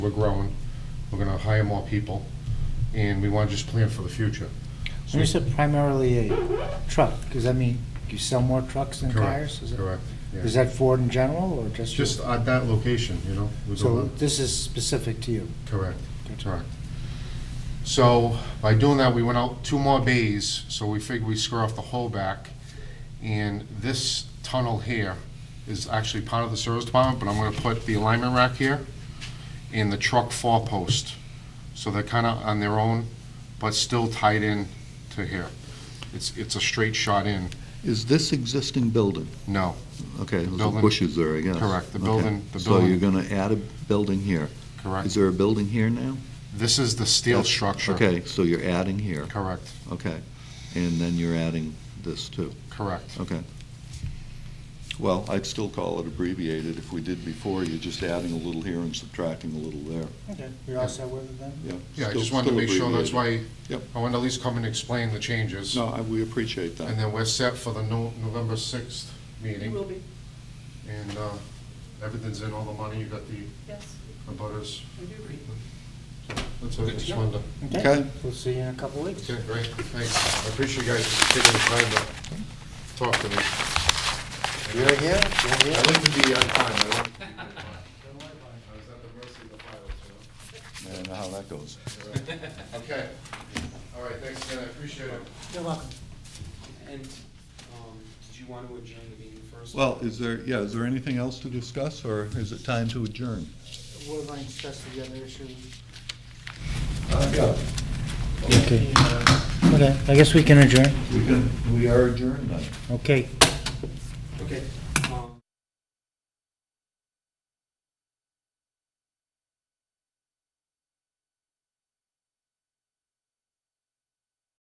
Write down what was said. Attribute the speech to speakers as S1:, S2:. S1: We're growing, we're gonna hire more people, and we wanna just plan for the future. So-
S2: When you said primarily a truck, does that mean you sell more trucks than
S1: Correct,
S2: cars? Is it-
S1: Correct,
S2: Is
S1: yeah.
S2: that Ford in general, or just?
S1: Just at that location, you know? we go
S2: So
S1: on-
S2: this is specific to you?
S1: Correct, correct. So by doing that, we went out two more bays, so we figured we square off the whole back. And this tunnel here is actually part of the service department, but I'm gonna put the alignment rack here and the truck four post. So they're kinda on their own, but still tied in to here. It's, it's a straight shot in.
S3: Is this existing building?
S1: No,
S3: Okay, there's some
S1: building-
S3: bushes there, I guess.
S1: correct, the
S3: Okay.
S1: building- the
S3: So you're
S1: building-
S3: going to add a building here. Is
S1: correct.
S3: there a building here now?
S1: This is the steel
S3: That's-
S1: structure.
S3: Okay, so you're adding here,
S1: Correct,
S3: okay. And then you're adding this too,
S1: correct.
S3: okay. Well, I'd still call it abbreviated if we did before, you're just adding a little here and subtracting a little there,
S2: Okay, you're all set with it then?
S3: yeah.
S1: Yeah, I
S3: still-
S1: just wanted to
S3: still
S1: make sure, that's
S3: abbreviated.
S1: why,
S3: Yep.
S1: I wanted to at least come and explain the changes.
S3: No, I- we appreciate
S1: And
S3: that.
S1: then we're set for the No- November 6th
S4: It will
S1: meeting,
S4: be,
S1: and uh, everything's in, all the money, you got the
S4: yes,
S1: abutters.
S4: we do agree.
S1: That's all, I just wanted to,
S3: Okay.
S2: We'll see you in a couple weeks.
S1: okay, great, thanks. I appreciate you guys taking the time to talk to me.
S2: You're here, you're
S1: I
S2: here.
S1: like to be on time, I like to be on time. I was at Oh, the mercy of the pilots, you
S3: I don't know how that goes.
S1: know? Okay, all right, thanks again, I appreciate it.
S2: You're welcome.
S5: And, um, did you want to adjourn the meeting first?
S3: Well, is there, yeah, is there anything else to discuss, or is it time to adjourn?
S2: We're going to discuss the other issue.
S3: Yeah.
S2: Okay. Okay, I guess we can adjourn.
S3: We can, we are adjourned then.
S2: Okay.
S5: Okay. um,